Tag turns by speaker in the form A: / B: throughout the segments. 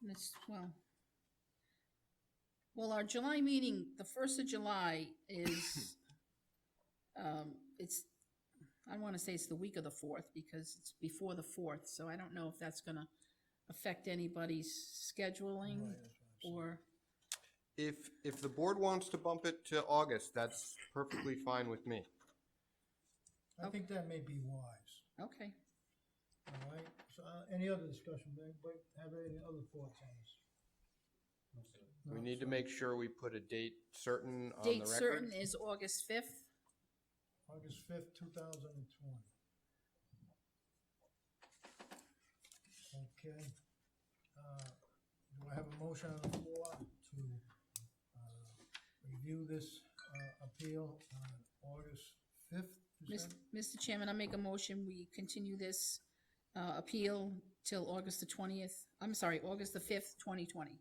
A: This, well. Well, our July meeting, the first of July is, um, it's, I don't wanna say it's the week of the fourth, because it's before the fourth, so I don't know if that's gonna affect anybody's scheduling or,
B: If, if the board wants to bump it to August, that's perfectly fine with me.
C: I think that may be wise,
A: okay.
C: all right? So, uh, any other discussion, but, but have any other thoughts on this?
B: We need to make sure we put a date certain on the
A: Date
B: record.
A: certain is August fifth,
C: August fifth, two thousand and twenty. Okay, uh, do I have a motion on the floor to, uh, review this, uh, appeal on August fifth? you
A: Mis-
C: said?
A: Mr. Chairman, I make a motion, we continue this, uh, appeal till August the twentieth, I'm sorry, August the fifth, twenty twenty.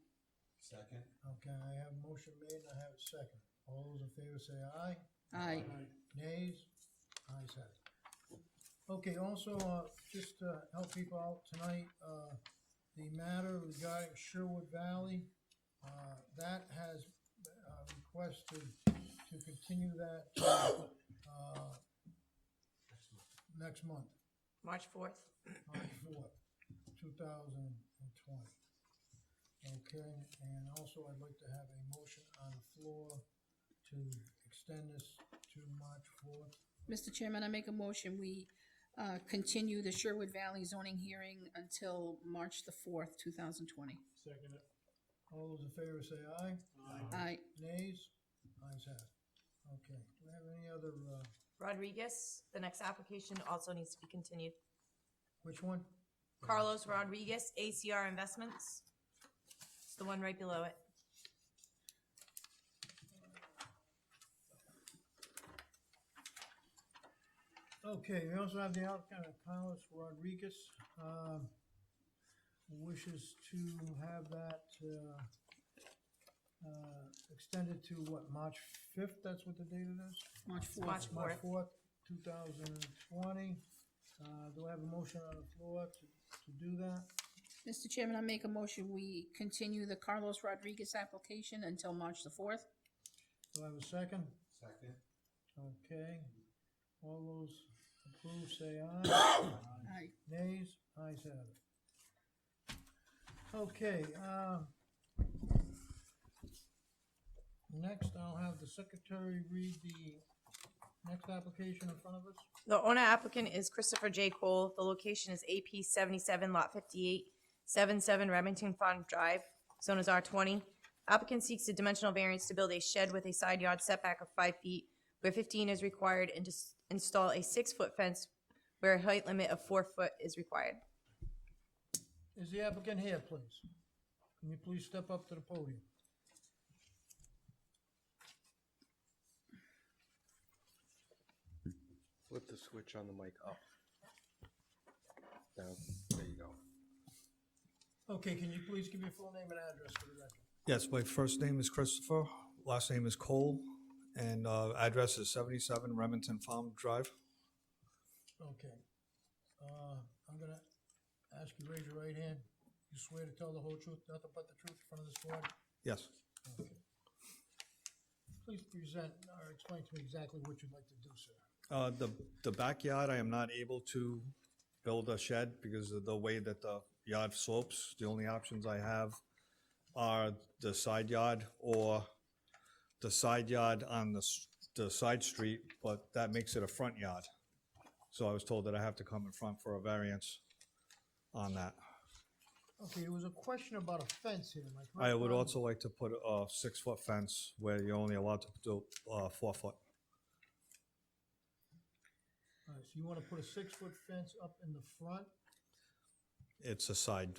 D: Second?
C: Okay, I have a motion made and I have a second. All those in favor say aye.
A: Aye.
C: Nays? Ayes have it. Okay, also, uh, just to help people out tonight, uh, the matter regarding Sherwood Valley, uh, that has, uh, requested to continue that, to, uh, next month,
E: March fourth?
C: March fourth, two thousand and twenty. Okay, and also I'd like to have a motion on the floor to extend this to March fourth.
A: Mr. Chairman, I make a motion, we, uh, continue the Sherwood Valley zoning hearing until March the fourth, two thousand twenty.
C: Second it. All those in favor say aye.
A: Aye.
C: Nays? Ayes have it. Okay, do we have any other, uh,
E: Rodriguez, the next application also needs to be continued.
C: which one?
E: Carlos Rodriguez, ACR Investments. It's the one right below it.
C: Okay, we also have the applicant of Carlos Rodriguez, um, wishes to have that, uh, uh, extended to what, March fifth, that's what the date it is?
A: March
E: March
A: fourth.
C: March
E: fourth.
C: fourth, two thousand and twenty. Uh, do I have a motion on the floor to, to do that?
A: Mr. Chairman, I make a motion, we continue the Carlos Rodriguez application until March the fourth.
C: Do I have a second?
D: Second?
C: Okay, all those approve, say aye.
A: Aye.
C: Nays, ayes have it. Okay, uh, next I'll have the secretary read the next application in front of us.
E: The owner applicant is Christopher J. Cole. The location is AP seventy-seven lot fifty-eight, seven-seven Remington Farm Drive. Zone is R twenty. Applicant seeks a dimensional variance to build a shed with a side yard setback of five feet where fifteen is required and to s- install a six-foot fence where a height limit of four foot is required.
C: Is the applicant here, please? Can you please step up to the podium?
B: Flip the switch on the mic up. Down, there you go.
C: Okay, can you please give your full name and address for the record?
F: Yes, my first name is Christopher, last name is Cole, and uh, address is 77 Remington Farm Drive.
C: Okay, uh, I'm gonna ask you, to raise your right hand. You swear to tell the whole truth, nothing but the truth in front of this board?
F: Yes.
C: Please present or explain to me exactly what you'd like to do, sir.
F: Uh, The the backyard, I am not able to build a shed because of the way that the yard slopes. The only options I have are the side yard or the side yard on the s- the side street, but that makes it a front yard. So I was told that I have to come in front for a variance on that.
C: Okay, there was a question about a fence here, am I correct?
F: I would
C: on-
F: also like to put a six-foot fence where you're only allowed to do uh, four foot.
C: All right, so you wanna put a six-foot fence up in the front
F: It's a side,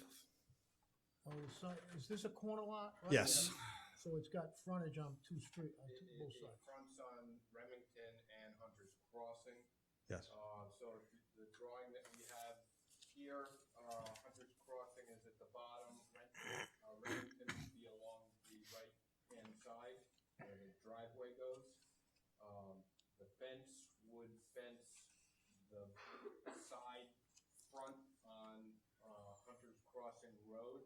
C: or the side, is this a corner lot? right?
F: yes,
C: So it's got frontage on two street, on two, both sides.
B: Fronts on Remington and Hunter's Crossing.
F: yes.
B: Uh, so the- the drawing that we have here, uh, Hunter's Crossing is at the bottom, Ren- uh, Remington would be along the right-hand side where the driveway goes. Um, the fence would fence the side front uh,